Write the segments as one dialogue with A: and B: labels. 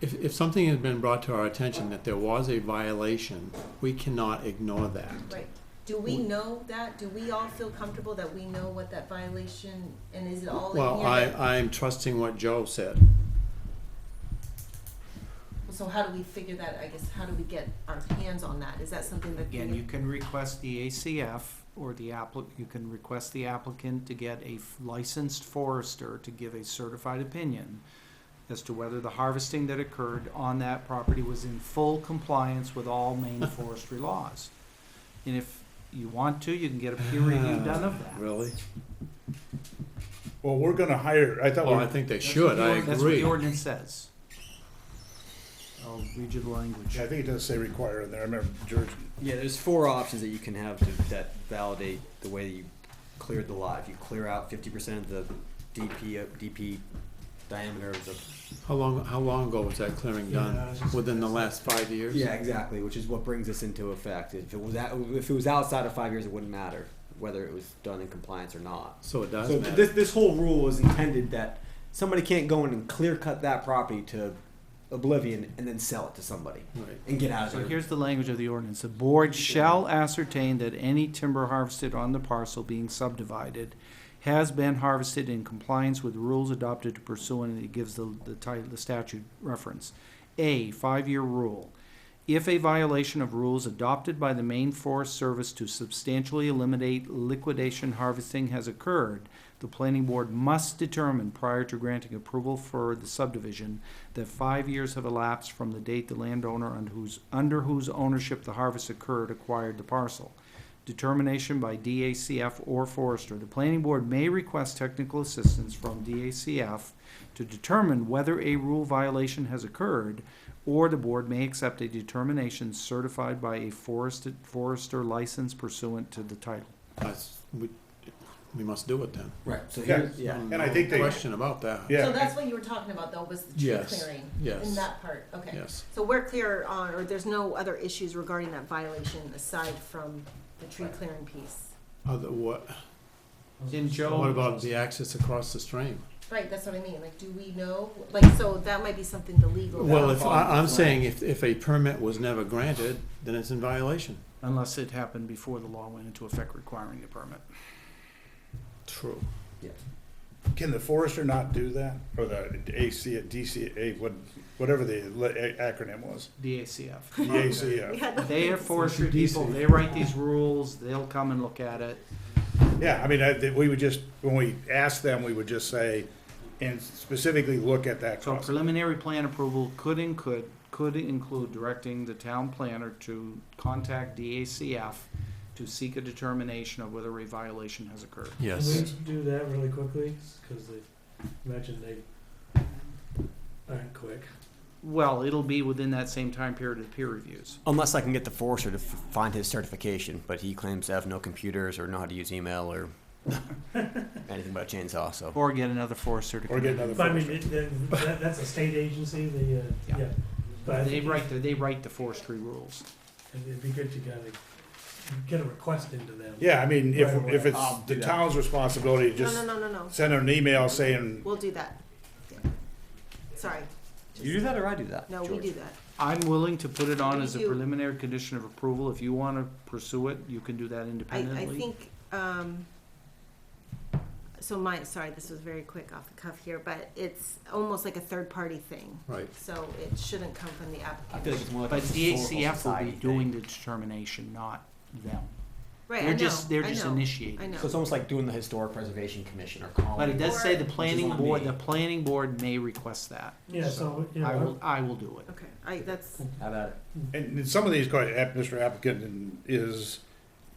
A: if, if something has been brought to our attention that there was a violation, we cannot ignore that.
B: Right. Do we
A: Mm.
B: know that? Do we all feel comfortable that we know what that violation, and is it all in
A: Well,
B: here?
A: I,
B: that-
A: I'm trusting what Joe said.
B: So how do we figure that, I guess, how do we get our hands on that? Is that something that?
C: Again, you can request the ACF or the appli, you can request the applicant to get a f- licensed forester to give a certified opinion as to whether the harvesting that occurred on that property was in full compliance with all Maine forestry laws. And if you want to, you can get a peer review done of that.
A: Really?
D: Well, we're gonna hire, I thought,
A: Well, I
D: we-
A: think they
C: That's what
A: should,
C: the
A: I
C: ord- That's what
A: agree.
C: the ordinance says. I'll read you the language.
D: yeah, I think it does say require in there, I remember George,
E: Yeah, there's four options that you can have to, that validate the way that you cleared the lot. If you clear out fifty percent of the DP, DP diameter of the.
A: How long, how long ago was that clearing done? Within the last five years?
E: Yeah, exactly, which is what brings this into effect. If it was, out- if it was outside of five years, it wouldn't matter whether it was done in compliance or not.
A: So it does
E: So
A: matter.
E: this this whole rule is intended that somebody can't go in and clear cut that property to oblivion and then sell it to somebody
A: Right.
E: and get out of
C: So
E: there.
C: here's the language of the ordinance. The board shall ascertain that any timber harvested on the parcel being subdivided has been harvested in compliance with rules adopted to pursuant, and it gives the, the title, the statute reference. A, five-year rule. If a violation of rules adopted by the Maine Forest Service to substantially eliminate liquidation harvesting has occurred, the planning board must determine prior to granting approval for the subdivision that five years have elapsed from the date the landowner under whose, under whose ownership the harvest occurred acquired the parcel. Determination by DACF or forester. The planning board may request technical assistance from DACF to determine whether a rule violation has occurred, or the board may accept a determination certified by a forested, forester license pursuant to the title.
A: That's- we, we must do it then.
E: Right. So
D: Yeah.
E: here's yeah.
A: No
D: And I think they-
A: Question about that.
D: yeah.
B: So that's what you were talking about, though, was the tree
A: Yes,
B: clearing?
A: yes.
B: In that part, okay.
A: Yes.
B: So we're clear on, or there's no other issues regarding that violation aside from the tree
E: Right.
B: clearing piece?
A: Other, what,
C: In Joe.
A: what about the access across the stream?
B: Right, that's what I mean, like, do we know, like, so that might be something the legal.
A: Well, if,
B: Right.
A: I, I'm saying if, if a permit was never granted, then it's in violation.
C: Unless it happened before the law went into effect requiring the permit.
A: True.
D: can the forester not do that? Or the AC, DCA, what, whatever the le- a- acronym was,
C: DACF.
D: the uh,
B: We
D: ACF.
B: had the-
C: They have forestry
A: Introduce
C: people,
A: it.
C: they write these rules, they'll come and look at it.
D: Yeah, I mean, I, we would just, when we asked them, we would just say, and specifically look at that
C: So
D: cost.
C: preliminary plan approval could and could, could include directing the town planner to contact DACF to seek a determination of whether a violation has occurred.
A: Yes.
F: do that really quickly? Because I imagine they aren't quick.
C: Well, it'll be within that same time period of peer reviews.
E: Unless I can get the forester to f- find his certification, but he claims to have no computers or know how to use email or anything but a chainsaw. So
C: Or get another forester to.
D: Or get
C: come in.
D: another
F: But I mean,
D: forester.
F: it- that- that, that's a state agency, the, uh,
C: Yeah.
F: yeah. But I
C: They
F: think
C: write, the they write the forestry rules.
F: it'd be good to get a, get a request into them.
D: Yeah, I mean, if,
F: Right away.
D: if it's
E: I'll do
D: the
E: that.
D: town's responsibility,
B: No,
D: to just
B: no, no, no, no,
D: send an email saying,
B: we'll do that. Yeah. Sorry.
E: you do that or I do that?
B: No, we
E: George?
B: do that.
C: I'm willing to put it on as a
B: You-
C: preliminary condition of approval. If you wanna pursue it, you can do
B: I,
C: that independently.
B: I think, um, so my, sorry, this was very quick off the cuff here, but it's almost like a third-party thing,
A: Right.
B: so it shouldn't come from the
E: I feel
B: applicant.
E: like it's more like a
C: But
E: historical
C: DACF will
E: society
C: be
E: thing.
C: doing the determination, not them.
B: Right, I
C: They're
B: know,
C: just, they're
B: I
C: just
B: know, I
C: initiating.
B: know.
E: So it's almost like doing the historic preservation commission or calling.
C: But it does say the
B: Which
E: is
C: planning
E: on
C: board,
E: me.
C: the planning board may request that.
F: Yeah, so, you
C: I
F: know,
C: will, I will do it.
B: Okay, I, that's,
E: How about it?
D: and and some of these, quite, app- Mr. Applicant, and is,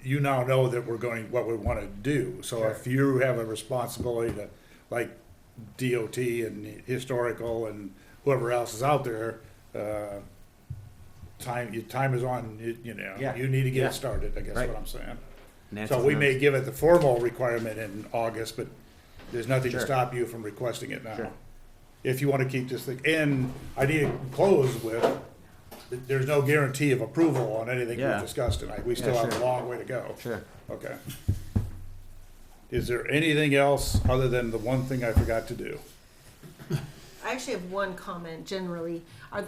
D: you now know that we're going, what we want to do. So if you have a responsibility to, like DOT and historical and whoever else is out there, uh, time, your time is on, you- you know,
E: Yeah.
D: you need to get
E: Yeah.
D: it started, I guess
E: Right.
D: what I'm saying. So
E: Nancy's
D: we may
E: numbers.
D: give it the formal requirement in August, but there's nothing to
E: Sure.
D: stop you from requesting it now.
E: Sure.
D: If you want to keep this thing, and I need to close with, th- there's no guarantee of approval on anything
E: Yeah.
D: we've discussed tonight. We still
E: Yeah,
D: have a
E: sure.
D: long way to go.
E: Sure.
D: Okay. Is there anything else other than the one thing I forgot to do?
B: I actually have one comment generally. Are